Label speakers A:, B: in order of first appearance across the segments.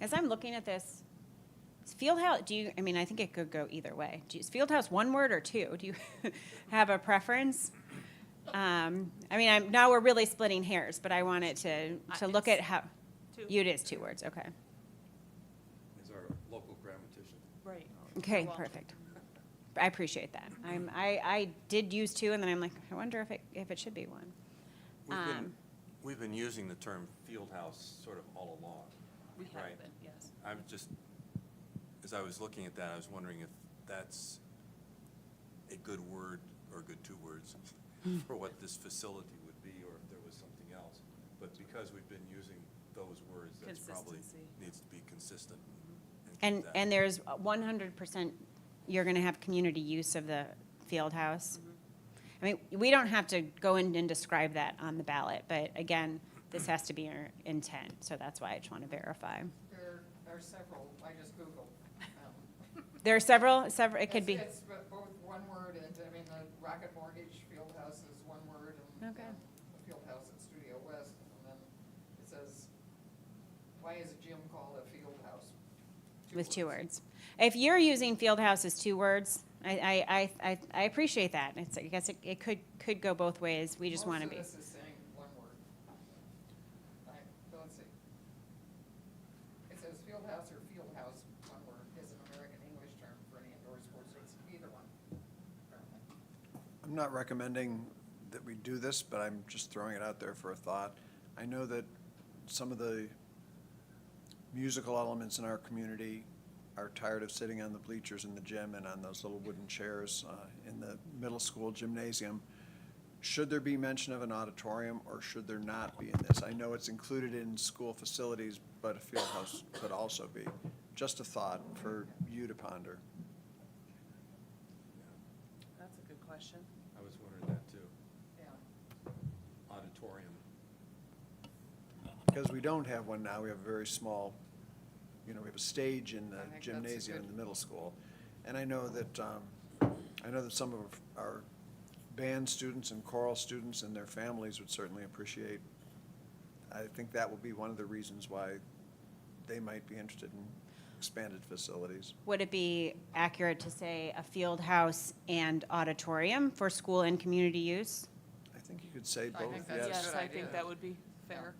A: As I'm looking at this, is Fieldhouse, do you, I mean, I think it could go either way. Do you, is Fieldhouse one word or two? Do you have a preference? Um, I mean, I'm, now we're really splitting hairs, but I wanted to,
B: Uh,
A: to look at
B: it's
A: how,
B: Two.
A: you, it is two words, okay.
C: is our local grammatician.
B: Right.
A: Okay,
B: Oh, Well-
A: perfect. I appreciate that. I'm, I, I did use two, and then I'm like, I wonder if it, if it should be one.
C: We've been,
A: Um,
C: we've been using the term field house sort of all along.
B: We have
C: Right.
B: been, yes.
C: I'm just, as I was looking at that, I was wondering if that's a good word or good two words for what this facility would be, or if there was something else. But because we've been using those words, that's probably,
B: Consistency. Mm-hmm.
C: needs to be consistent. keep
A: And,
C: that.
A: and there's one hundred percent, you're gonna have community use of the field house.
D: Mm-hmm.
A: I mean, we don't have to go in and describe that on the ballot, but again, this has to be our intent, so that's why I just wanna verify.
D: There are several, I just Googled. um,
A: There are several, several, it could be,
D: It's it's both one word and, I mean, the Rocket Mortgage field house is one word and.
A: Okay.
D: um, the field house at Studio West, and then it says, why is a gym called a field house?
A: with two words. If you're using field house as two words, I, I, I, I- I appreciate that, it's, I guess it, it could, could go both ways, we just wanna be.
D: Most of this is saying one word. All right, so let's see. It says field house or field house, one word, is an American English term for any indoor sports, it's either one, apparently.
E: I'm not recommending that we do this, but I'm just throwing it out there for a thought. I know that some of the musical elements in our community are tired of sitting on the bleachers in the gym and on those little wooden chairs uh, in the middle school gymnasium. Should there be mention of an auditorium or should there not be in this? I know it's included in school facilities, but a field house could also be. Just a thought for you to ponder.
C: Yeah,
B: That's a good question.
C: I was wondering that too.
D: Yeah.
C: Auditorium.
E: Because we don't have one now, we have a very small, you know, we have a stage in
D: I
E: the
D: think that's a
E: gymnasium in
D: good-
E: the middle school. And I know that, um, I know that some of our band students and choral students and their families would certainly appreciate. I think that will be one of the reasons why they might be interested in expanded facilities.
A: Would it be accurate to say a field house and auditorium for school and community use?
E: I think you could say
D: I
E: both,
D: think Oh, that's a
E: yes,
B: Yes,
D: good
B: I
D: idea.
B: think that would be fair.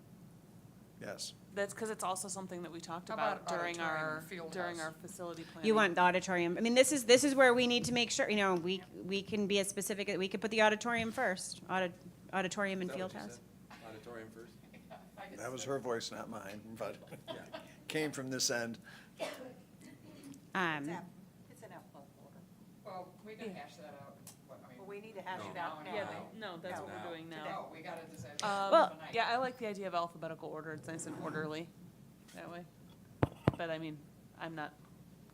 E: yes.
B: That's because it's also something that we talked
D: How about
B: about during
D: auditorium
B: our,
D: and field
B: during
D: house?
B: our facility planning.
A: You want the auditorium, I mean, this is, this is where we need to make sure, you know, we, we can be as specific, we could put the auditorium first, audit, auditorium and
C: Is that
A: field
C: what you
A: house.
C: said? Auditorium first?
D: I just
E: That was
D: said-
E: her voice, not mine, but
C: Yeah.
E: came from this end.
A: Um,
F: It's app- it's an alphabetical order.
D: Well, we can hash that out, what, I mean.
F: Well, we need to hash it
C: No.
F: out
B: Yeah,
F: now.
C: No.
B: they- no, that's what
C: No.
B: we're doing now.
D: No, we gotta decide. that
B: Um,
D: tonight.
B: yeah, I like the idea of alphabetical order. It's nice and orderly that way. But I mean, I'm not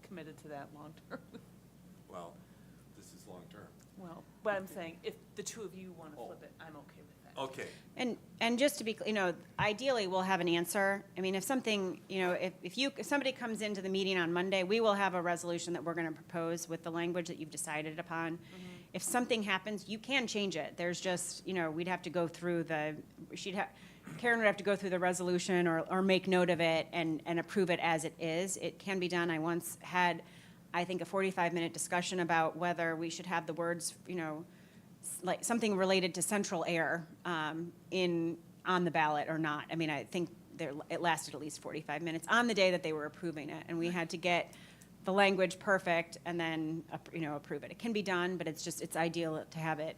B: committed to that long-term.
C: Well, this is long-term.
B: Well, but I'm saying if the two of you want to
C: Oh.
B: flip it, I'm okay with
D: Oh.
B: that.
C: Okay,
A: And, and just to be, cl- you know, ideally, we'll have an answer. I mean, if something, you know, if, if you, if somebody comes into the meeting on Monday, we will have a resolution that we're gonna propose with the language that you've decided upon. If something happens, you can change it. There's just, you know, we'd have to go through the, she'd have, Karen would have to go through the resolution or, or make note of it and, and approve it as it is. It can be done. I once had, I think, a forty-five minute discussion about whether we should have the words, you know, s- like something related to central air um, in on the ballot or not. I mean, I think there it lasted at least 45 minutes on the day that they were approving it, and we had to get the language perfect and then ap- you know approve it. It can be done, but it's just it's ideal to have it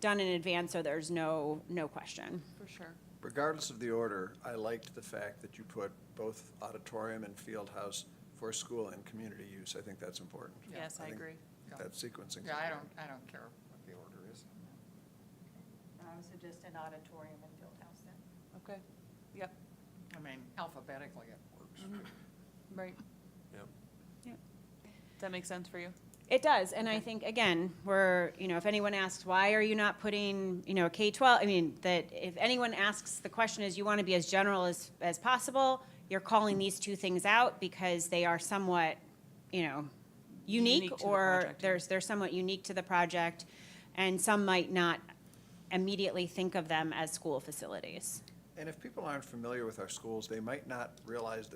A: done in advance so there's no no question.
B: For sure.
E: Regardless of the order, I liked the fact that you put both auditorium and field house for school and community use. I think that's important.
D: Yeah,
B: Yes, I
E: think-
B: agree.
D: Yeah.
E: That sequencing.
D: Yeah, I don't, I don't care what the order is.
F: I would suggest an auditorium and field house then.
B: Okay. Yep,
D: I mean, alphabetically it works.
B: right.
C: yep.
B: Does that make sense for you?
A: It does, and I think again, we're you know, if anyone asks why are you not putting you know K twelve, I mean that if anyone asks the question is you want to be as general as as possible, you're calling these two things out because they are somewhat, you know, unique,
B: Unique to the
A: or
B: project, yeah.
A: there's they're somewhat unique to the project, and some might not immediately think of them as school facilities.
E: And if people aren't familiar with our schools, they might not realize that